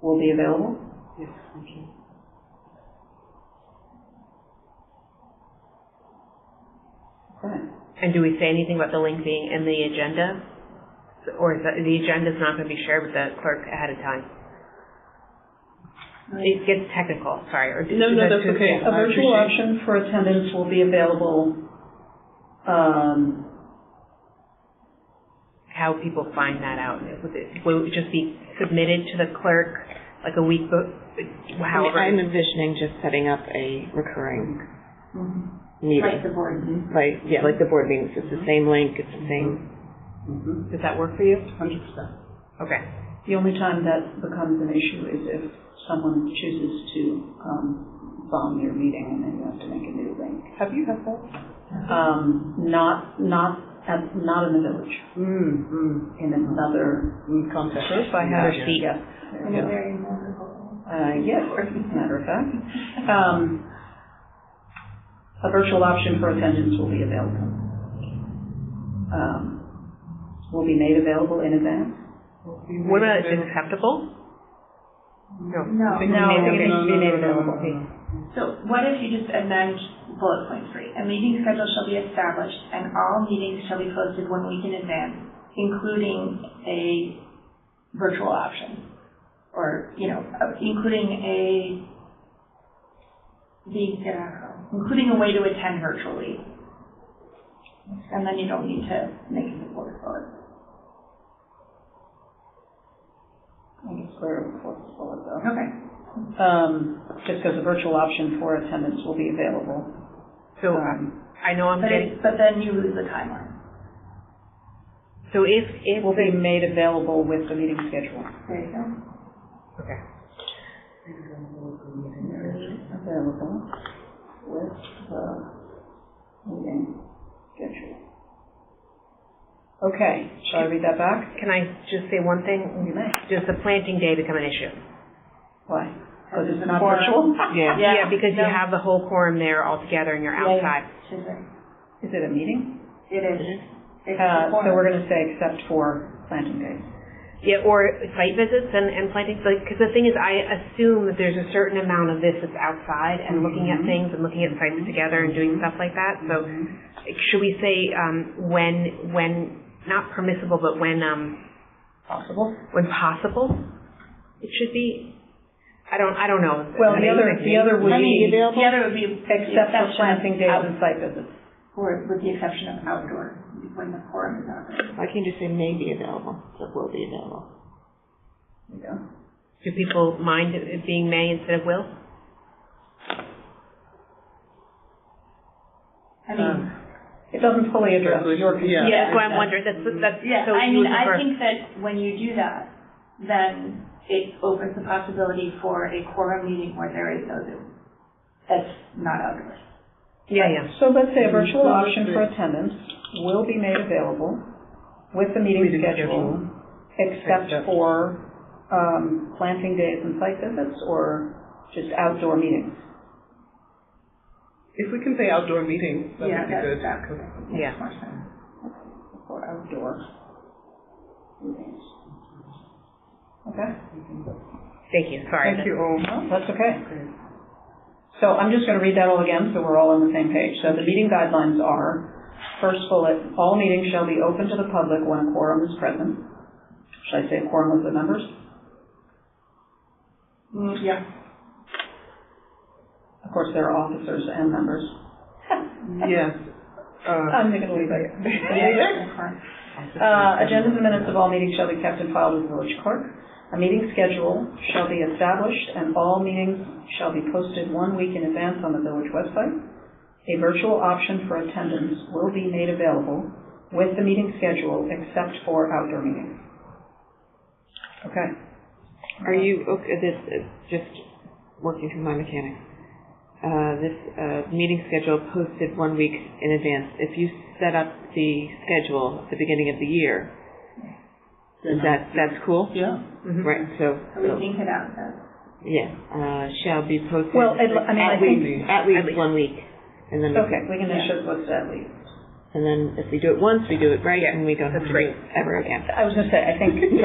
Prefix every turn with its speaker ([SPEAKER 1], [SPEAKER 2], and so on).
[SPEAKER 1] will be available?
[SPEAKER 2] Yes, thank you.
[SPEAKER 1] Correct.
[SPEAKER 3] And do we say anything about the link being in the agenda? Or is that, the agenda's not gonna be shared with the clerk ahead of time? It gets technical, sorry. or do-
[SPEAKER 2] No, no,
[SPEAKER 3] is that
[SPEAKER 2] that's
[SPEAKER 3] too-
[SPEAKER 2] okay.
[SPEAKER 3] yeah.
[SPEAKER 1] A
[SPEAKER 2] I
[SPEAKER 1] virtual
[SPEAKER 2] appreciate-
[SPEAKER 1] option for attendance will be available, um,
[SPEAKER 3] How people find that out? Would it, will it just be submitted to the clerk like a week, bef-
[SPEAKER 4] I mean,
[SPEAKER 3] however?
[SPEAKER 4] I'm envisioning just setting up a recurring
[SPEAKER 2] Mm-hmm.
[SPEAKER 4] meeting.
[SPEAKER 5] Like the board.
[SPEAKER 4] Like, yeah, like the board meetings, it's the same link, it's the same,
[SPEAKER 2] Mhm,
[SPEAKER 3] Does that work for you?
[SPEAKER 2] Hundred percent.
[SPEAKER 3] Okay.
[SPEAKER 1] Mm-hmm. The only time that becomes an issue is if someone chooses to um, bomb your meeting and then you have to make a new link.
[SPEAKER 2] Have you had that?
[SPEAKER 1] Um, Not, not, at- not in the village,
[SPEAKER 2] Mm, mm,
[SPEAKER 1] in another,
[SPEAKER 2] mm, contact.
[SPEAKER 3] Sure, if I had a seat.
[SPEAKER 1] yes. there
[SPEAKER 5] And
[SPEAKER 1] you
[SPEAKER 5] a
[SPEAKER 1] go.
[SPEAKER 5] very memorable.
[SPEAKER 1] Uh, yes, as a matter of fact. Um, A virtual option for attendance will be available. Um, Will be made available in advance.
[SPEAKER 3] What about, is it acceptable? No.
[SPEAKER 5] No.
[SPEAKER 2] I think-
[SPEAKER 1] No,
[SPEAKER 3] I think
[SPEAKER 1] it
[SPEAKER 3] it
[SPEAKER 1] needs to be made available.
[SPEAKER 5] So what if you just amend bullet point three? A meeting schedule shall be established and all meetings shall be posted one week in advance, including a virtual option. Or, you know, uh, including a, the, uh, including a way to attend virtually. And then you don't need to make it a bullet bullet.
[SPEAKER 1] I guess we're forceful though.
[SPEAKER 5] Okay.
[SPEAKER 1] um, just because a virtual option for attendance will be available.
[SPEAKER 3] So
[SPEAKER 1] Um,
[SPEAKER 3] I know I'm
[SPEAKER 5] But
[SPEAKER 3] getting,
[SPEAKER 5] it, but then you lose the timeline.
[SPEAKER 3] so if, if.
[SPEAKER 1] It will be
[SPEAKER 3] the-
[SPEAKER 1] made available with the meeting schedule.
[SPEAKER 5] There you go.
[SPEAKER 3] Okay.
[SPEAKER 1] Available with the meeting schedule. Okay, shall I read that back?
[SPEAKER 3] Can I just say one thing?
[SPEAKER 1] You may.
[SPEAKER 3] Does the planting day become an issue?
[SPEAKER 1] Why? Because
[SPEAKER 5] Because
[SPEAKER 1] it's
[SPEAKER 5] it's
[SPEAKER 1] not
[SPEAKER 5] forum.
[SPEAKER 1] virtual?
[SPEAKER 4] yeah.
[SPEAKER 3] Yeah, because you
[SPEAKER 5] no.
[SPEAKER 3] have the whole quorum there all together and you're
[SPEAKER 5] Yeah, yeah.
[SPEAKER 3] outside.
[SPEAKER 5] She's right.
[SPEAKER 1] Is it a meeting?
[SPEAKER 5] It is. It's
[SPEAKER 1] Uh, so
[SPEAKER 5] important.
[SPEAKER 1] we're going to say except for planting days.
[SPEAKER 3] Yeah, or site visits and, and plantings, like, because the thing is, I assume that there's a certain amount of this that's outside and looking
[SPEAKER 5] Mm-hmm.
[SPEAKER 3] at things and looking at sites together and doing stuff like that, so should we say, um, when, when, not permissible, but when, um,
[SPEAKER 1] Possible.
[SPEAKER 3] when possible? It should be, I don't, I don't know.
[SPEAKER 1] Well, the other, the other would
[SPEAKER 4] I mean,
[SPEAKER 1] be
[SPEAKER 4] available,
[SPEAKER 5] The other would be
[SPEAKER 1] except for planting days
[SPEAKER 5] out-
[SPEAKER 1] and site visits.
[SPEAKER 5] Or with the exception of outdoor, when the quorum is outdoor.
[SPEAKER 4] I can just say may be available, so will be available.
[SPEAKER 1] There you go.
[SPEAKER 3] Do people mind it being may instead of will?
[SPEAKER 5] I mean,
[SPEAKER 1] Um, It doesn't fully address
[SPEAKER 2] Resolution,
[SPEAKER 1] your
[SPEAKER 2] Um, yeah.
[SPEAKER 1] concern.
[SPEAKER 3] Yeah, that's why I'm
[SPEAKER 1] Is that-
[SPEAKER 3] wondering, that's, that's,
[SPEAKER 5] yeah,
[SPEAKER 3] so
[SPEAKER 5] I
[SPEAKER 3] you
[SPEAKER 5] mean,
[SPEAKER 3] would
[SPEAKER 5] I
[SPEAKER 3] prefer.
[SPEAKER 5] think that when you do that, then it opens the possibility for a quorum meeting where there is no Zoom. That's not outdoors.
[SPEAKER 3] Yeah, yeah.
[SPEAKER 1] So let's say a virtual
[SPEAKER 2] Mhm.
[SPEAKER 1] option for attendance will be made available with the meeting
[SPEAKER 2] Meeting
[SPEAKER 1] schedule, except
[SPEAKER 2] Except-
[SPEAKER 1] for, um, planting days and site visits, or just outdoor meetings?
[SPEAKER 2] If we can say outdoor meetings, that
[SPEAKER 5] Yeah,
[SPEAKER 2] would be
[SPEAKER 5] that's,
[SPEAKER 2] good.
[SPEAKER 5] that
[SPEAKER 3] Yeah.
[SPEAKER 5] makes more sense.
[SPEAKER 1] Or outdoor meetings. Okay,
[SPEAKER 3] Thank you, sorry.
[SPEAKER 2] Thank you all.
[SPEAKER 1] no, that's okay. So I'm just gonna read that all again, so we're all on the same page. So the meeting guidelines are, first bullet, all meetings shall be open to the public when a quorum is present. Should I say a quorum of the members?
[SPEAKER 5] Mm, yeah.
[SPEAKER 1] Of course, there are officers and members.
[SPEAKER 2] Yes. Uh,
[SPEAKER 1] I'm going to leave it.
[SPEAKER 5] Quorum.
[SPEAKER 1] Uh, agendas and minutes of all meetings shall be kept and filed with the village clerk. A meeting schedule shall be established and all meetings shall be posted one week in advance on the village website. A virtual option for attendance will be made available with the meeting schedule except for outdoor meetings. Okay.
[SPEAKER 4] Are you, okay, this, is just working through my mechanics. Uh, this, uh, meeting schedule posted one week in advance. If you set up the schedule at the beginning of the year, is that, that's cool?
[SPEAKER 2] Yeah.
[SPEAKER 3] Mm-hmm.
[SPEAKER 4] Right, so,
[SPEAKER 5] So we think it out, though.
[SPEAKER 4] yeah, uh, shall be posted.
[SPEAKER 1] Well, I I mean, I
[SPEAKER 4] At
[SPEAKER 1] think,
[SPEAKER 4] least, at least one week. And then,
[SPEAKER 1] okay, we can just what's that leave.
[SPEAKER 4] and then if we do it once, we do it right, and we don't have
[SPEAKER 3] that's
[SPEAKER 4] to do it ever again.
[SPEAKER 1] I was going to say, I think